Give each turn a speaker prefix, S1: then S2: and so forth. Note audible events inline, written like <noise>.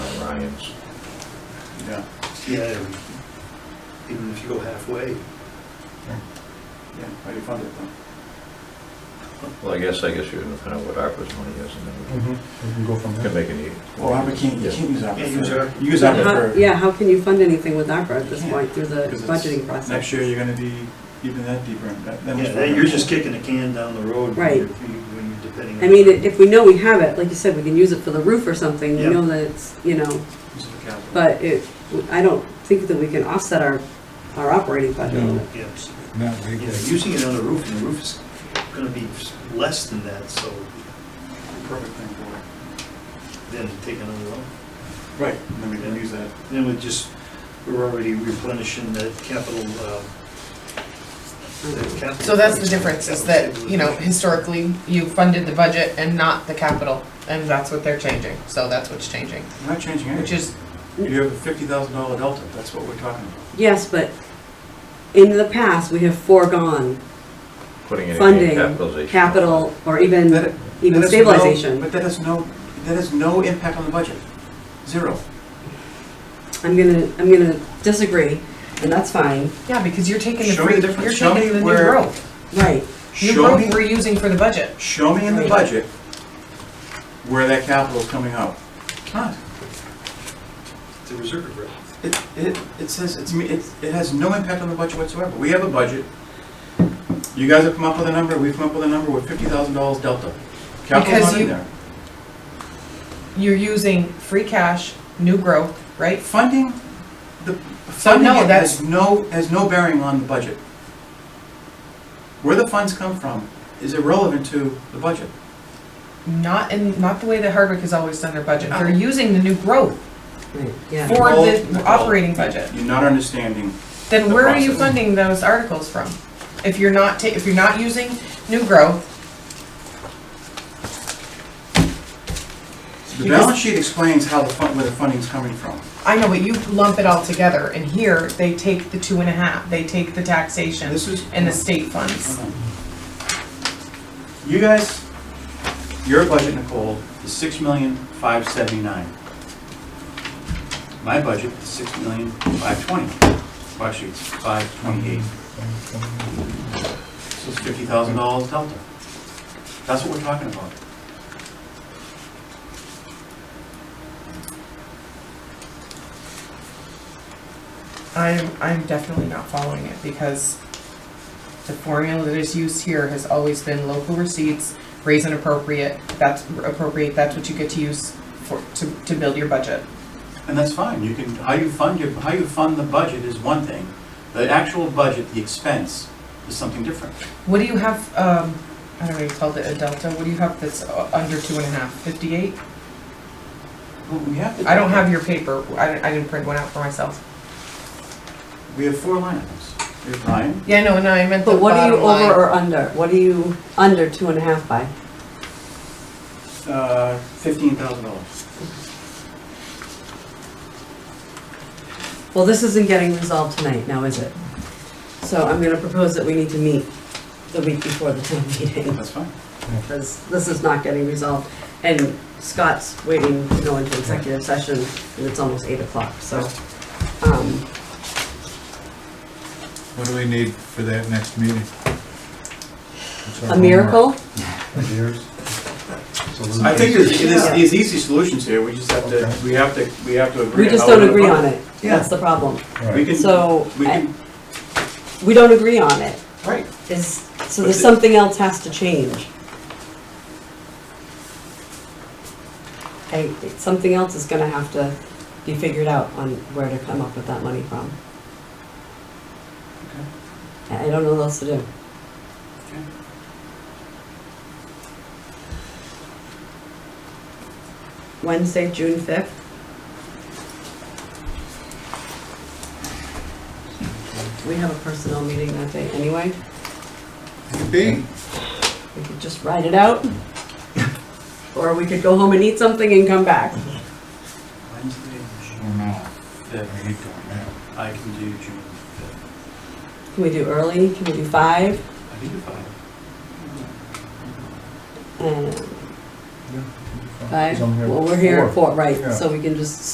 S1: variance.
S2: Yeah.
S3: Yeah, and even if you go halfway,
S2: Yeah, how do you fund it then?
S1: Well, I guess, I guess you're gonna find out what ARPA's money is and then
S4: Mm-hmm. We can go from
S1: we can
S4: there.
S1: make any.
S2: Well, we can't, you can't use ARPA.
S3: Can't use
S2: for-
S3: ARPA.
S2: Use
S5: How-
S2: ARPA for,
S5: Yeah, how can you fund anything with ARPA at this
S2: Yeah,
S5: point through the
S2: 'cause it's-
S5: budgeting process?
S2: next year you're gonna be even that deeper in debt. That was
S3: yeah,
S2: for-
S3: then you're just kicking the can down the road. when
S5: Right.
S3: you're- When you're depending. on-
S5: I mean, i- if we know we have it, like you said, we can use it for the roof or something, we
S3: Yeah.
S5: know that it's, you know,
S3: Use the capital.
S5: but it, I don't think that we can offset our, our operating budget.
S4: No.
S3: Yes,
S4: Not
S3: yeah,
S4: legally.
S3: using it on the roof, and the roof is gonna be less than that, so
S2: Perfect thing for it.
S3: then take another loan.
S2: Right, and then we can use that.
S3: Then we just, we're already replenishing that capital, uh, that capital.
S6: So that's the difference, is that, you know, historically, you funded the budget and not the capital, and that's what they're changing, so that's what's changing,
S2: We're not changing
S6: which
S2: anything.
S6: is,
S2: You have a fifty thousand dollar delta, that's what we're talking about.
S5: Yes, but in the past, we have foregone
S1: Putting any
S5: funding,
S1: capitalization.
S5: capital, or even,
S2: That-
S5: even
S2: that has no-
S5: stabilization.
S2: But that has no, that has no impact on the budget. Zero.
S5: I'm gonna, I'm gonna disagree, and that's fine,
S6: yeah, because you're taking the
S2: Show me
S6: free,
S2: the
S6: you're
S2: difference. Show me
S6: taking the new
S2: where-
S6: growth.
S5: right.
S6: New
S2: Show me,
S6: growth we're using for the budget.
S2: show me in the
S6: Right.
S2: budget where that capital is coming out. Not.
S3: The reserve rate.
S2: It, it, it says, it's, me- it, it has no impact on the budget whatsoever. We have a budget. You guys have come up with a number, we've come up with a number, with fifty thousand dollars delta. Capital's not
S6: Because
S2: in
S6: you-
S2: there.
S6: You're using free cash, new growth, right?
S2: Funding, the, funding
S6: no, that's-
S2: has no, has no bearing on the budget. Where the funds come from is irrelevant to the budget.
S6: Not in, not the way that Hardwick has always done their budget, they're
S2: No.
S6: using the new growth
S5: Yeah.
S6: for the
S2: Nicole,
S6: operating budget.
S2: You're not understanding.
S6: Then
S2: the
S6: where are you
S2: process.
S6: funding those articles from? If you're not ta, if you're not using new growth,
S2: The
S6: You just-
S2: balance sheet explains how the fund, where the funding's coming from.
S6: I know, but you lump it all together, and here, they take the two and a half, they take the taxation
S2: This is-
S6: and the state funds.
S2: You guys, your budget, Nicole, is six million, five seventy-nine. My budget is six million, five twenty. Well, Actually, it's five twenty-eight. So it's fifty thousand dollars delta. That's what we're talking about.
S6: I'm, I'm definitely not following it, because the formula that is used here has always been local receipts, raise and appropriate, that's appropriate, that's what you get to use for, to, to build your budget.
S2: And that's fine, you can, how you fund your, how you fund the budget is one thing. The actual budget, the expense, is something different.
S6: What do you have, um, I don't know, you called it a delta, what do you have that's uh, under two and a half, fifty-eight?
S2: Well, we have to-
S6: I don't have your paper, I didn't, I didn't print one out for myself.
S2: We have four line items. We have line,
S6: Yeah, no, no, I meant the
S5: But what are you
S6: bottom line.
S5: over or under? What are you under two and a half by?
S2: uh, fifteen thousand dollars.
S5: Well, this isn't getting resolved tonight now, is it? So I'm gonna propose that we need to meet the week before the town <laughs> meeting,
S2: That's fine.
S5: because this is not getting resolved. And Scott's waiting to go into executive session, and it's almost eight o'clock, so, um,
S4: What do we need for that next meeting? What's our
S5: a miracle?
S4: homework? Ideas? Solutions?
S2: I think there's, there's,
S5: Yeah.
S2: there's easy solutions here, we just have to,
S4: Okay.
S2: we have to, we have to agree.
S5: We
S2: on
S5: just
S2: how we're
S5: don't
S2: gonna
S5: agree on
S2: vote.
S5: it.
S2: Yeah.
S5: That's the problem.
S4: Right.
S2: We can,
S5: So,
S2: we
S5: I-
S2: can,
S5: We don't agree on it.
S2: right,
S5: Is, so
S2: But
S5: there's
S2: the-
S5: something else has to change. I, something else is gonna have to be figured out on where to come up with that money from. I I don't know what else to do. Wednesday, June fifth? We have a personnel meeting that day anyway.
S4: Be.
S5: We could just ride it out. Or we could go home and eat something and come back.
S2: Wednesday, June
S4: Or not.
S2: fifth,
S4: We need to, yeah.
S2: I can do June fifth,
S5: Can we do early? Can we do five?
S2: I can do five.
S5: And
S4: Yeah.
S5: five?
S4: Somewhere
S5: Well, we're here
S4: before.
S5: at four, right,
S4: Yeah.
S5: so we can just